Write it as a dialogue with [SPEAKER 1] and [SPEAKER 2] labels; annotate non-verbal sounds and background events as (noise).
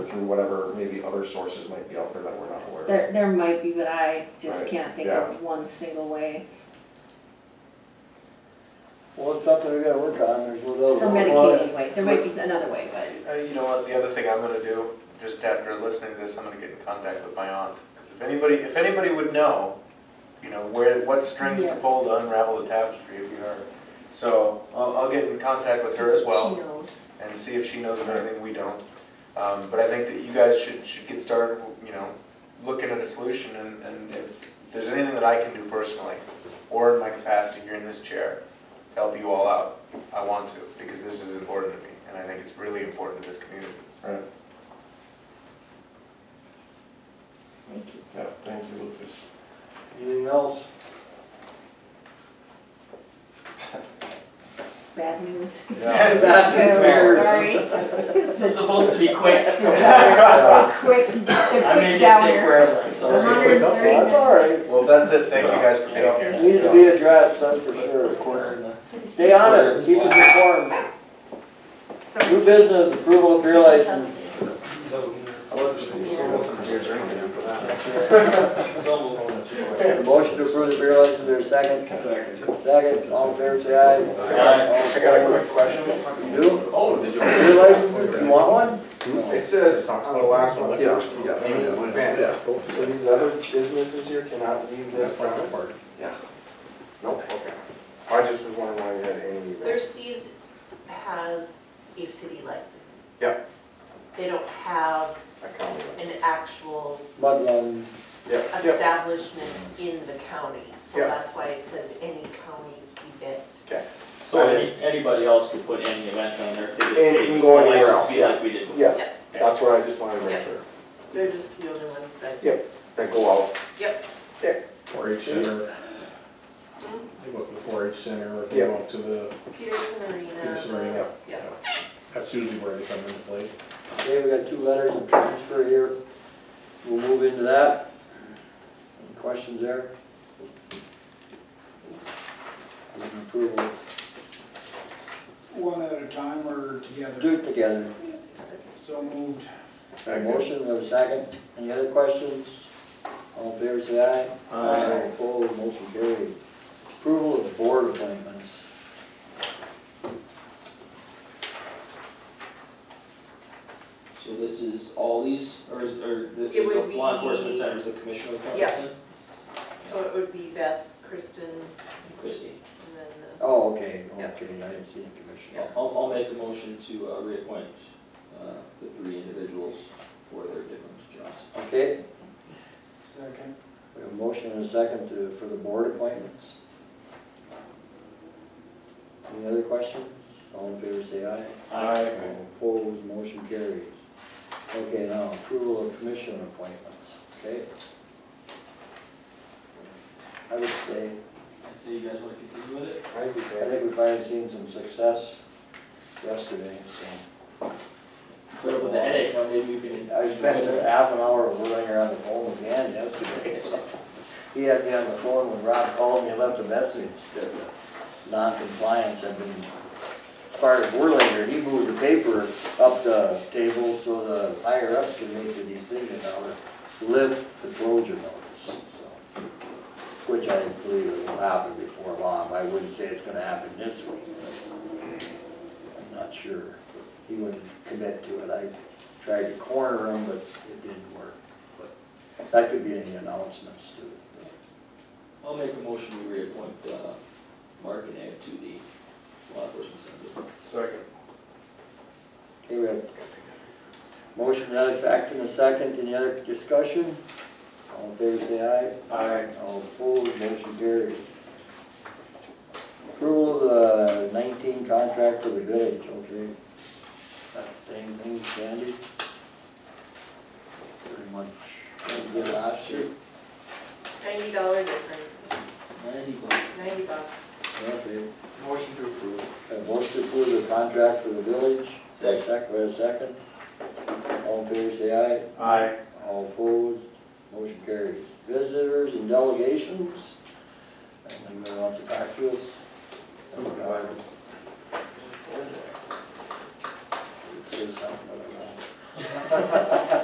[SPEAKER 1] through whatever maybe other sources might be out there that we're not aware of.
[SPEAKER 2] There, there might be, but I just
[SPEAKER 1] Right,
[SPEAKER 2] can't think of one single way.
[SPEAKER 3] Well, it's something we gotta work on, there's no doubt.
[SPEAKER 2] For
[SPEAKER 3] about it.
[SPEAKER 2] Medicaid anyway, there might be another way, but
[SPEAKER 4] Uh, you know what, the other thing I'm gonna do, just after listening to this, I'm gonna get in contact with my aunt. Because if anybody, if anybody would know, you know, where, what strings to
[SPEAKER 2] Yeah.
[SPEAKER 4] pull to unravel the tapestry if you are. So I'll, I'll get in contact with her as well
[SPEAKER 2] she knows.
[SPEAKER 4] and see if she knows of anything we don't. Um, but I think that you guys should, should get started, you know, looking at a solution and, and if there's anything that I can do personally or in my capacity here in this chair, to help you all out, I want to, because this is important to me and I think it's really important to this community.
[SPEAKER 1] Right,
[SPEAKER 2] Thank you.
[SPEAKER 1] yeah, thank you, Lucas.
[SPEAKER 3] Anything else?
[SPEAKER 2] Bad news.
[SPEAKER 5] Sorry. This is supposed to be quick.
[SPEAKER 1] Yeah.
[SPEAKER 2] Quick, quick
[SPEAKER 5] I'm gonna get take
[SPEAKER 2] downer.
[SPEAKER 5] wherever, I'm sorry.
[SPEAKER 2] Hundred and
[SPEAKER 3] Well,
[SPEAKER 2] thirty.
[SPEAKER 3] That's all right,
[SPEAKER 4] (laughs) Well, that's it, thank you guys for being here.
[SPEAKER 3] It needs to be addressed, that's for sure. Stay on it, keep us informed. New business, approval of beer license. A Motion to approve the beer license, there's a second. Second. Second, all in favor, say aye.
[SPEAKER 5] Aye.
[SPEAKER 1] I got a quick question.
[SPEAKER 3] You do?
[SPEAKER 5] Oh, did you?
[SPEAKER 3] Beer licenses, you want one?
[SPEAKER 1] It says on the last one, yeah, yeah, yeah, yeah. So these other businesses here cannot leave this premise? Yeah. Nope, okay. I just was wondering why you had any.
[SPEAKER 6] Thirsties has a city license.
[SPEAKER 1] Yep.
[SPEAKER 6] They don't have
[SPEAKER 1] I counted
[SPEAKER 6] an
[SPEAKER 1] it.
[SPEAKER 6] actual
[SPEAKER 3] Mudland.
[SPEAKER 1] Yeah, yeah,
[SPEAKER 6] establishment in the county, so
[SPEAKER 1] Yeah.
[SPEAKER 6] that's why it says any county event.
[SPEAKER 5] So any, anybody else could put any event on there, if they just
[SPEAKER 1] And
[SPEAKER 5] paid
[SPEAKER 1] can go
[SPEAKER 5] the
[SPEAKER 1] anywhere
[SPEAKER 5] license
[SPEAKER 1] else,
[SPEAKER 5] fee
[SPEAKER 1] yeah.
[SPEAKER 5] like we did.
[SPEAKER 1] yeah, that's what I just wanted to make
[SPEAKER 6] Yeah.
[SPEAKER 1] sure,
[SPEAKER 6] They're just the only ones that.
[SPEAKER 1] Yeah. that go out.
[SPEAKER 6] Yep.
[SPEAKER 7] four H center. They go to the four H center, or they
[SPEAKER 1] Yeah.
[SPEAKER 7] go to the,
[SPEAKER 6] Peterson Arena.
[SPEAKER 7] Peterson Arena.
[SPEAKER 6] Yeah.
[SPEAKER 7] that's usually where they come into play.
[SPEAKER 3] Okay, we got two letters of transfer here. We'll move into that. Any questions there? Approval.
[SPEAKER 8] One at a time
[SPEAKER 3] Do
[SPEAKER 8] or together?
[SPEAKER 3] it together.
[SPEAKER 8] So moved.
[SPEAKER 3] A motion, we have a second. Any other questions? All in favor, say aye. Aye. Opposed, motion carried. Approval of board appointments.
[SPEAKER 5] So this is all these, or is, or the,
[SPEAKER 6] It would
[SPEAKER 5] the law enforcement
[SPEAKER 6] be-
[SPEAKER 5] center is the commissioner of
[SPEAKER 6] Yeah.
[SPEAKER 5] Wisconsin?
[SPEAKER 6] So it would be Beth's, Kristen, and
[SPEAKER 5] Chrissy,
[SPEAKER 6] then the.
[SPEAKER 3] Oh, okay,
[SPEAKER 6] Yeah.
[SPEAKER 3] okay, I didn't see the commissioner.
[SPEAKER 5] I'll, I'll make a motion to, uh, reappoint, uh, the three individuals for their different jobs.
[SPEAKER 3] Okay,
[SPEAKER 8] Second.
[SPEAKER 3] we have a motion and a second to, for the board appointments. Any other questions? All in favor, say aye.
[SPEAKER 5] Aye.
[SPEAKER 3] All Opposed, motion carries. Okay, now approval of commission appointments, okay? I would say,
[SPEAKER 5] So you guys wanna continue with it?
[SPEAKER 1] I
[SPEAKER 3] I think we finally seen some success yesterday, so.
[SPEAKER 5] Sort of with the headache, now maybe we can.
[SPEAKER 3] I spent half an hour whirling her on the phone again yesterday, (laughs) so. He had me on the phone when Rob called me, and left a message that the non-compliance had been part of Whirlinger. He moved the paper up the table so the higher ups could make the decision how to lift the Trojan notice, so. Which I believe it will happen before long. I wouldn't say it's gonna happen this week. I'm not sure. He wouldn't commit to it. I tried to corner him, but it didn't work. But that could be in the announcements too.
[SPEAKER 5] I'll make a motion to reappoint, uh, Mark and Ed to the law enforcement center.
[SPEAKER 4] Second.
[SPEAKER 3] Okay, we have motion to that effect in a second. Any other discussion? All in favor, say aye.
[SPEAKER 5] Aye.
[SPEAKER 3] All opposed, motion carries. Approval of the nineteen contract for the village, okay. That's the same thing, Sandy? Pretty much, what we did last year.
[SPEAKER 6] Ninety dollar difference,
[SPEAKER 3] Ninety bucks.
[SPEAKER 6] ninety bucks.
[SPEAKER 3] Okay.
[SPEAKER 1] Motion to approve.
[SPEAKER 3] A motion to approve the contract for the village.
[SPEAKER 5] Second.
[SPEAKER 3] Second, wait a second. All in favor, say aye. Aye. All opposed, motion carries. Visitors and delegations, and anybody wants to talk to us? Say something, but I won't.